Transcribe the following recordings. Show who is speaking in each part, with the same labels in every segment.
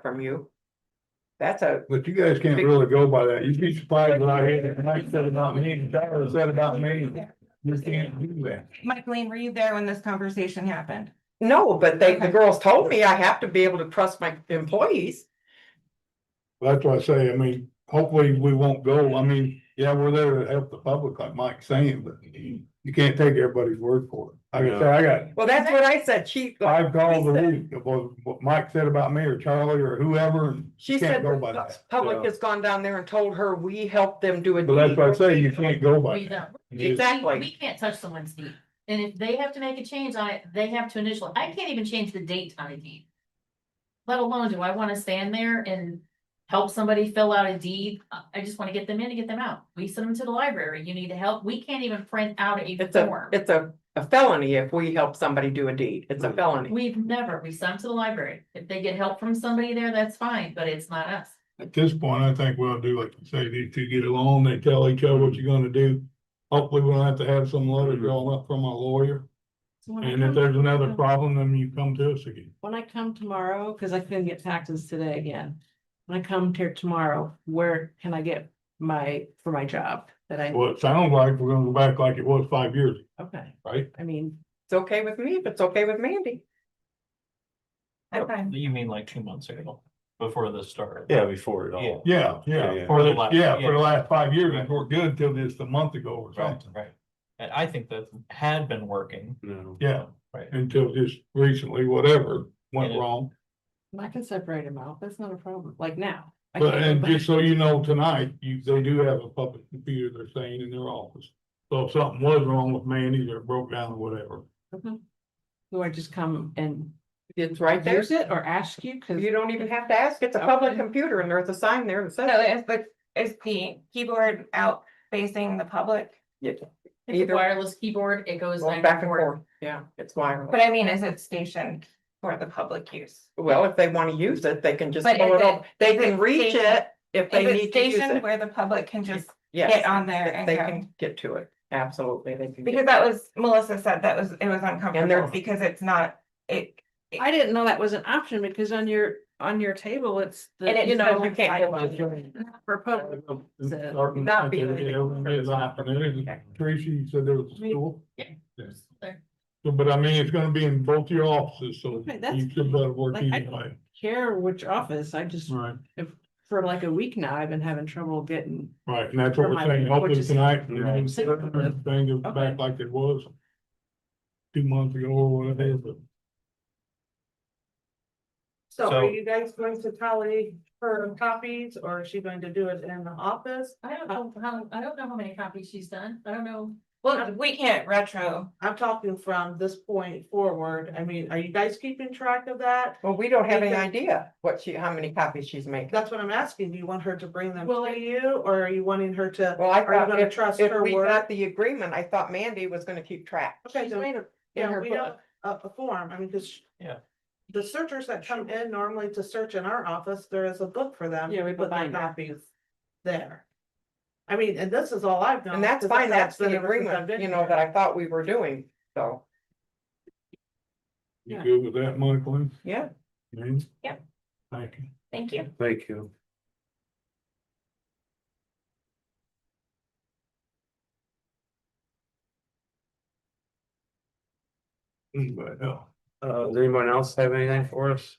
Speaker 1: from you. That's a,
Speaker 2: But you guys can't really go by that. You'd be surprised what I hear and I said about me, and Tyler said about me. You can't do that.
Speaker 3: Michaeline, were you there when this conversation happened?
Speaker 1: no, but they, the girls told me I have to be able to trust my employees.
Speaker 2: That's why I say, I mean, hopefully we won't go. I mean, yeah, we're there to help the public like Mike's saying, but you can't take everybody's word for it. Like I said, I got
Speaker 1: Well, that's what I said. She,
Speaker 2: five calls a week of what- what Mike said about me or Charlie or whoever. and
Speaker 1: she
Speaker 2: can't
Speaker 1: said
Speaker 2: go by that.
Speaker 1: the public has gone down there and told her we helped them do a
Speaker 2: But that's
Speaker 1: deed.
Speaker 2: why I say you can't go by
Speaker 4: We
Speaker 2: that.
Speaker 4: don't.
Speaker 2: You just-
Speaker 1: Exactly.
Speaker 4: We can't touch someone's deed, and if they have to make a change on it, they have to initial, I can't even change the date on a deed. Let alone, do I wanna stand there and help somebody fill out a deed, I- I just wanna get them in and get them out, we send them to the library, you need to help, we can't even print out a
Speaker 1: It's a,
Speaker 4: form.
Speaker 1: it's a a felony if we help somebody do a deed. It's a felony.
Speaker 4: We've never, we send them to the library, if they get help from somebody there, that's fine, but it's not us.
Speaker 2: At this point, I think we'll do like you say, these two get along, they tell each other what you're gonna do. Hopefully, we don't have to have some letter drawn up from a lawyer,
Speaker 5: So when I
Speaker 2: and if
Speaker 5: come, uh,
Speaker 2: there's another problem, then you come to us again.
Speaker 5: when I come tomorrow, cause I couldn't get taxes today again. When I come here tomorrow, where can I get my, for my job that I,
Speaker 2: Well, it sounds like we're gonna go back like it was five years, ago,
Speaker 5: okay,
Speaker 2: right?
Speaker 5: I mean,
Speaker 1: It's okay with me, if it's okay with Mandy. Oh.
Speaker 3: I'm fine.
Speaker 6: You mean like two months ago, before this started?
Speaker 7: Yeah, before it all.
Speaker 2: Yeah,
Speaker 7: Yeah,
Speaker 2: yeah,
Speaker 7: yeah.
Speaker 2: for
Speaker 6: For the
Speaker 2: the,
Speaker 6: last-
Speaker 2: yeah, for the
Speaker 6: yeah.
Speaker 2: last five years, and we're good till just a month ago or
Speaker 6: Right,
Speaker 2: something,
Speaker 6: right. And I think that had been working.
Speaker 7: No.
Speaker 2: yeah,
Speaker 6: Right.
Speaker 2: until just recently, whatever went
Speaker 6: Yeah.
Speaker 2: wrong.
Speaker 5: I can separate them out, that's not a problem, like now. I
Speaker 2: But,
Speaker 5: can-
Speaker 2: and just so you know, tonight, you, they do have a public computer they're saying in their office. So if something was wrong with Mandy's or broke down or whatever,
Speaker 5: Do I just come and
Speaker 1: It's right there.
Speaker 5: use it or ask you, cause
Speaker 1: You don't even have to ask. It's a public
Speaker 5: Okay.
Speaker 1: computer and there's a sign there that
Speaker 3: So
Speaker 1: says.
Speaker 3: is the, is the keyboard out facing the public?
Speaker 4: It's
Speaker 1: Either-
Speaker 4: a wireless keyboard, it goes
Speaker 1: Going
Speaker 4: back and forth.
Speaker 1: Yeah, it's wireless.
Speaker 3: But I mean, is it stationed for the public use?
Speaker 1: Well, if they want to use it, they can just
Speaker 3: But
Speaker 1: pull
Speaker 3: is
Speaker 1: it up.
Speaker 3: it-
Speaker 1: They
Speaker 3: is
Speaker 1: can
Speaker 3: it
Speaker 1: reach
Speaker 3: stationed-
Speaker 1: it if
Speaker 3: Is
Speaker 1: they
Speaker 3: it
Speaker 1: need to use
Speaker 3: stationed
Speaker 1: it.
Speaker 3: where the public can just get
Speaker 1: Yes,
Speaker 3: on there
Speaker 1: they
Speaker 3: and go?
Speaker 1: can get to it. Absolutely, they can.
Speaker 3: Because
Speaker 1: get-
Speaker 3: that was, Melissa said that was, it was uncomfortable because it's not, it,
Speaker 5: I didn't know that was an option because on your, on your table, it's. the
Speaker 3: And it
Speaker 5: you
Speaker 3: says
Speaker 5: know,
Speaker 3: you can't go on
Speaker 5: For public,
Speaker 2: Starting
Speaker 1: Not
Speaker 2: at
Speaker 1: being-
Speaker 2: the- everyone is off, and everything.
Speaker 1: Okay.
Speaker 2: Tracy, you said there was a
Speaker 5: Me-
Speaker 2: school,
Speaker 4: There.
Speaker 2: So, but I mean, it's gonna be in both your offices, so
Speaker 5: Okay, that's-
Speaker 2: you should better work
Speaker 5: like, I-
Speaker 2: either way.
Speaker 5: care which office, I just,
Speaker 2: Right,
Speaker 5: for like a week now, I've been having trouble getting
Speaker 2: right, and that's what
Speaker 5: For
Speaker 2: we're
Speaker 5: my-
Speaker 2: saying,
Speaker 5: which
Speaker 2: hopefully
Speaker 5: is-
Speaker 2: tonight,
Speaker 7: Yeah.
Speaker 2: and thing goes back like it was. Two months ago or whatever, but
Speaker 8: So
Speaker 6: So-
Speaker 8: are you guys going to tally her copies or is she going to do it in the office?
Speaker 4: I don't know how, I don't know how many copies she's done, I don't know.
Speaker 3: well, we can't retro.
Speaker 8: I'm talking from this point forward. I mean, are you guys keeping track of that?
Speaker 1: Well, we don't have any
Speaker 8: Because-
Speaker 1: idea what she, how many copies she's making.
Speaker 8: That's what I'm asking. Do you want her to bring them
Speaker 5: Well,
Speaker 8: to you or are you wanting her to,
Speaker 1: Well, I
Speaker 8: are you
Speaker 1: thought
Speaker 8: gonna
Speaker 1: if,
Speaker 8: trust
Speaker 1: if
Speaker 8: her
Speaker 1: we
Speaker 8: word?
Speaker 1: got the agreement, I thought Mandy was gonna keep track.
Speaker 8: Okay,
Speaker 5: She's
Speaker 8: so,
Speaker 5: made a- in
Speaker 8: yeah,
Speaker 5: her
Speaker 8: we don't,
Speaker 5: book.
Speaker 8: a, a form, I mean, cause.
Speaker 6: Yeah.
Speaker 8: The searchers that come in normally to search in our office, there is a book for them.
Speaker 5: Yeah, we have a
Speaker 8: with their
Speaker 5: binder.
Speaker 8: Copies there. I mean, and this is all I've known.
Speaker 1: And that's
Speaker 8: 'cause
Speaker 1: fine, that's
Speaker 8: been
Speaker 1: the
Speaker 8: ever since I've
Speaker 1: agreement,
Speaker 8: been
Speaker 1: you know,
Speaker 8: here.
Speaker 1: that I thought we were doing, so,
Speaker 2: you
Speaker 5: Yeah.
Speaker 2: good with that, Michael?
Speaker 1: yeah.
Speaker 3: Yeah.
Speaker 2: Thank you.
Speaker 3: Thank you.
Speaker 7: Thank you.
Speaker 2: Anybody else?
Speaker 7: Uh, does anyone else have anything for us?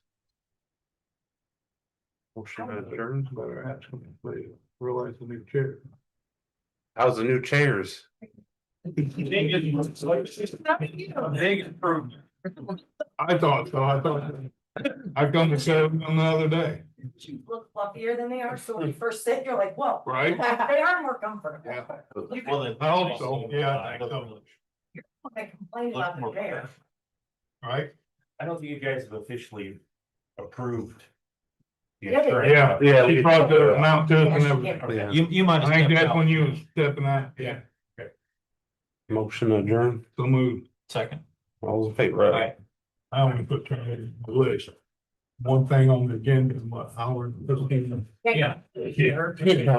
Speaker 7: Motion adjourned.
Speaker 2: Better ask them, if they realize the new chair.
Speaker 7: How's the new chairs?
Speaker 6: Big improvement.
Speaker 2: I thought so, I thought, I come to seven the other day,
Speaker 3: Look fluffier than they are, so when you first sit, you're like, whoa,
Speaker 2: right?
Speaker 3: they are more comfortable.
Speaker 2: Yeah.
Speaker 6: Well, then-
Speaker 2: I hope so, yeah, I think so.
Speaker 3: They complain
Speaker 6: Look more professional.
Speaker 2: Right?
Speaker 9: I don't think you guys have officially approved. the
Speaker 3: Yeah, they-
Speaker 9: insurance.
Speaker 2: Yeah,
Speaker 7: Yeah.
Speaker 2: she brought the amount to us and everything.
Speaker 3: Yeah.
Speaker 7: Yeah,
Speaker 6: You, you might. have
Speaker 2: I think
Speaker 6: stepped
Speaker 2: that's
Speaker 6: out.
Speaker 2: when you was stepping out, yeah,
Speaker 7: motion adjourned.
Speaker 2: so move,
Speaker 6: Second.
Speaker 7: All in favor?
Speaker 6: Aye.
Speaker 2: I only put trying to list. One thing on the agenda, is what, hour and fifteen.
Speaker 6: Yeah.
Speaker 2: Yeah.
Speaker 6: Yes.
Speaker 7: Perfect.
Speaker 2: Thank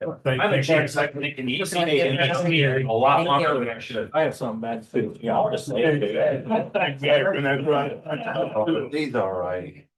Speaker 9: I
Speaker 2: you.
Speaker 9: think it's like making it easy and it's been a lot longer than I should.
Speaker 6: I have some bad food.
Speaker 9: Yeah, I'll just say. it.
Speaker 2: Exactly, and that's right.
Speaker 7: These are right.